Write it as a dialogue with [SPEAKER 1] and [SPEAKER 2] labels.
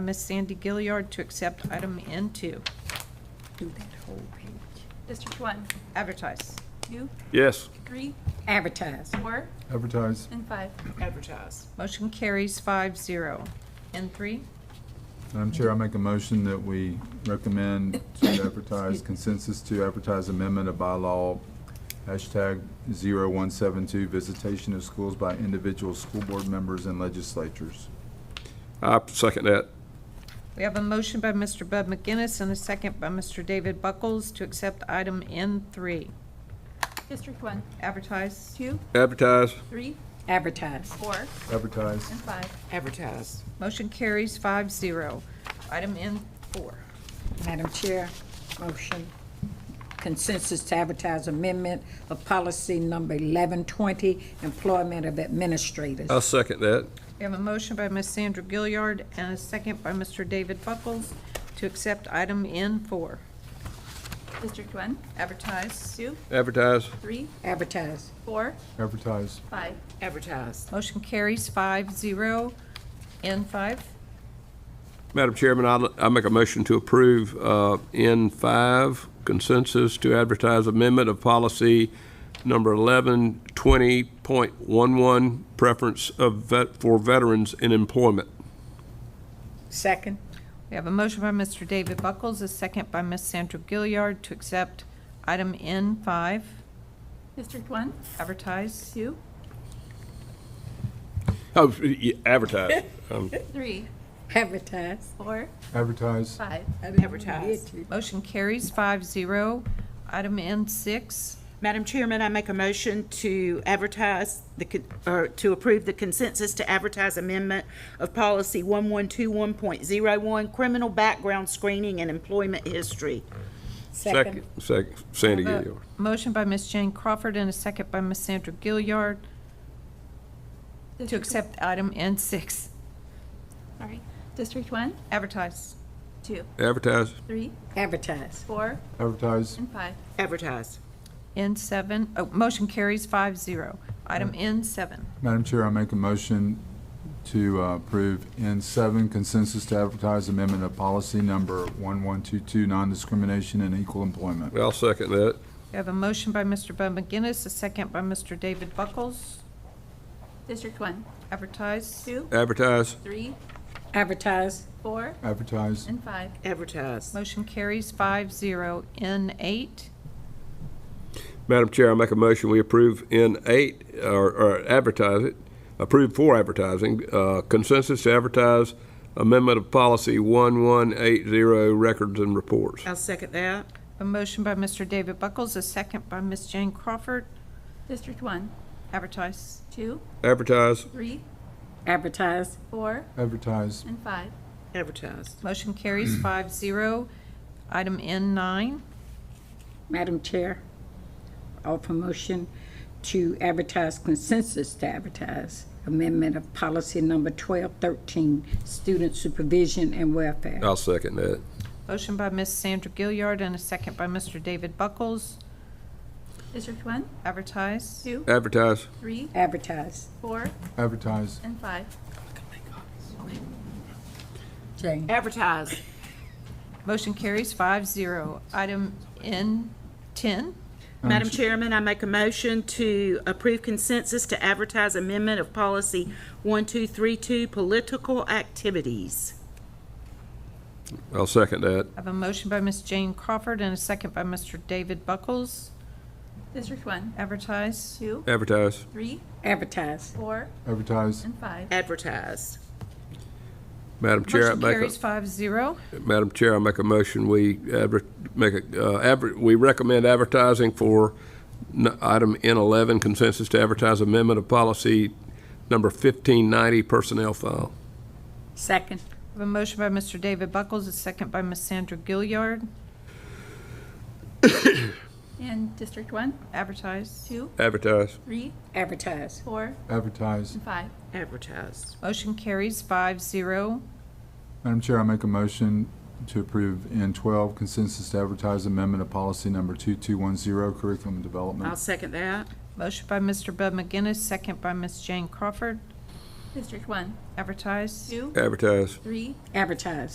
[SPEAKER 1] Miss Sandy Gilliard to accept item N2,
[SPEAKER 2] Do that whole page.
[SPEAKER 3] District one,
[SPEAKER 1] advertise.
[SPEAKER 3] two,
[SPEAKER 4] Yes.
[SPEAKER 3] three,
[SPEAKER 2] Advertise.
[SPEAKER 3] four,
[SPEAKER 5] Advertise.
[SPEAKER 3] and five.
[SPEAKER 6] advertise,
[SPEAKER 1] Motion carries five zero. N3,
[SPEAKER 5] Madam Chair, I make a motion that we recommend to advertise consensus to advertise amendment of bylaw hashtag 0172, visitation of schools by individual school board members and legislatures.
[SPEAKER 4] I second that.
[SPEAKER 1] we have a motion by Mr. Bud McGinnis and a second by Mr. David Buckles to accept item N3,
[SPEAKER 3] District one,
[SPEAKER 1] advertise.
[SPEAKER 3] two,
[SPEAKER 4] Advertise.
[SPEAKER 3] three,
[SPEAKER 2] Advertise.
[SPEAKER 3] four,
[SPEAKER 5] Advertise.
[SPEAKER 3] and five.
[SPEAKER 6] advertise,
[SPEAKER 1] Motion carries five zero. Item N4,
[SPEAKER 2] Madam Chair, motion consensus to advertise amendment of policy number 1120, employment of administrators.
[SPEAKER 4] I second that.
[SPEAKER 1] we have a motion by Miss Sandra Gilliard and a second by Mr. David Buckles to accept item N4,
[SPEAKER 3] District one,
[SPEAKER 1] advertise.
[SPEAKER 3] two,
[SPEAKER 4] Advertise.
[SPEAKER 3] three,
[SPEAKER 2] Advertise.
[SPEAKER 3] four,
[SPEAKER 5] Advertise.
[SPEAKER 3] five.
[SPEAKER 6] advertise,
[SPEAKER 1] Motion carries five zero. N5,
[SPEAKER 4] Madam Chairman, I, I make a motion to approve uh, N5 consensus to advertise amendment of policy number 1120.11, preference of vet, for veterans in employment.
[SPEAKER 2] Second.
[SPEAKER 1] we have a motion by Mr. David Buckles, a second by Miss Sandra Gilliard to accept item N5,
[SPEAKER 3] District one,
[SPEAKER 1] advertise.
[SPEAKER 3] two,
[SPEAKER 4] Oh, y- advertise. Um,
[SPEAKER 3] three,
[SPEAKER 2] Advertise.
[SPEAKER 3] four,
[SPEAKER 5] Advertise.
[SPEAKER 3] five.
[SPEAKER 6] advertise.
[SPEAKER 1] Motion carries five zero. Item N6,
[SPEAKER 6] Madam Chairman, I make a motion to advertise the, con- or to approve the consensus to advertise amendment of policy 1121.01, criminal background screening and employment history.
[SPEAKER 2] Second.
[SPEAKER 4] Second, Sandy Gilliard.
[SPEAKER 1] motion by Miss Jane Crawford and a second by Miss Sandra Gilliard to
[SPEAKER 3] District-
[SPEAKER 1] accept item N6,
[SPEAKER 3] Sorry. District one,
[SPEAKER 1] advertise.
[SPEAKER 3] two,
[SPEAKER 4] Advertise.
[SPEAKER 3] three,
[SPEAKER 2] Advertise.
[SPEAKER 3] four,
[SPEAKER 5] Advertise.
[SPEAKER 3] and five.
[SPEAKER 6] Advertise,
[SPEAKER 1] N7, oh, motion carries five zero. Item N7,
[SPEAKER 5] Madam Chair, I make a motion to uh, approve N7 consensus to advertise amendment of policy number 1122, non-discrimination and equal employment.
[SPEAKER 4] I'll second that.
[SPEAKER 1] we have a motion by Mr. Bud McGinnis, a second by Mr. David Buckles,
[SPEAKER 3] District one,
[SPEAKER 1] advertise.
[SPEAKER 3] two,
[SPEAKER 4] Advertise.
[SPEAKER 3] three,
[SPEAKER 2] Advertise.
[SPEAKER 3] four,
[SPEAKER 5] Advertise.
[SPEAKER 3] and five.
[SPEAKER 6] advertise,
[SPEAKER 1] Motion carries five zero. N8,
[SPEAKER 4] Madam Chair, I make a motion, we approve N8, or- or advertise it, approve for advertising, uh, consensus to advertise amendment of policy 1180, records and reports.
[SPEAKER 6] I'll second that.
[SPEAKER 1] a motion by Mr. David Buckles, a second by Ms. Jane Crawford,
[SPEAKER 3] District one,
[SPEAKER 1] advertise.
[SPEAKER 3] two,
[SPEAKER 4] Advertise,
[SPEAKER 3] three,
[SPEAKER 2] Advertise.
[SPEAKER 3] four,
[SPEAKER 5] Advertise.
[SPEAKER 3] and five.
[SPEAKER 6] Advertise,
[SPEAKER 1] Motion carries
[SPEAKER 4] Mm.
[SPEAKER 1] five zero. Item N9,
[SPEAKER 2] Madam Chair, offer motion to advertise consensus to advertise amendment of policy number 1213, student supervision and welfare.
[SPEAKER 4] I'll second that.
[SPEAKER 1] motion by Ms. Sandra Gilliard and a second by Mr. David Buckles,
[SPEAKER 3] District one,
[SPEAKER 1] advertise.
[SPEAKER 3] two,
[SPEAKER 4] Advertise,
[SPEAKER 3] three,
[SPEAKER 2] Advertise.
[SPEAKER 3] four,
[SPEAKER 5] Advertise.
[SPEAKER 3] and five.
[SPEAKER 2] Jane.
[SPEAKER 6] advertise,
[SPEAKER 1] Motion carries five zero. Item N10,
[SPEAKER 6] Madam Chairman, I make a motion to approve consensus to advertise amendment of policy 1232, political activities.
[SPEAKER 4] I'll second that.
[SPEAKER 1] I have a motion by Ms. Jane Crawford and a second by Mr. David Buckles,
[SPEAKER 3] District one,
[SPEAKER 1] advertise.
[SPEAKER 3] two,
[SPEAKER 4] Advertise,
[SPEAKER 3] three,
[SPEAKER 2] Advertise.
[SPEAKER 3] four,
[SPEAKER 5] Advertise.
[SPEAKER 3] and five.
[SPEAKER 6] Advertise,
[SPEAKER 4] Madam Chair, I
[SPEAKER 1] Motion
[SPEAKER 4] make
[SPEAKER 1] carries
[SPEAKER 4] a,
[SPEAKER 1] five zero.
[SPEAKER 4] Madam Chair, I make a motion, we adver, make a, uh, adver, we recommend advertising for n- item N11, consensus to advertise amendment of policy number 1590, personnel file.
[SPEAKER 2] Second.
[SPEAKER 1] I have a motion by Mr. David Buckles, a second by Ms. Sandra Gilliard,
[SPEAKER 3] And District one,
[SPEAKER 1] advertise.
[SPEAKER 3] two,
[SPEAKER 4] Advertise.
[SPEAKER 3] three,
[SPEAKER 2] Advertise.
[SPEAKER 3] four,
[SPEAKER 5] Advertise.
[SPEAKER 3] and five.
[SPEAKER 6] advertise,
[SPEAKER 1] Motion carries five zero.
[SPEAKER 5] Madam Chair, I make a motion to approve N12 consensus to advertise amendment of policy number 2210, curriculum
[SPEAKER 6] I'll
[SPEAKER 5] development.
[SPEAKER 6] second that.
[SPEAKER 1] Motion by Mr. Bud McGinnis, second by Ms. Jane Crawford, District one,
[SPEAKER 7] advertise.
[SPEAKER 1] two,
[SPEAKER 3] advertise.
[SPEAKER 1] three,
[SPEAKER 2] advertise.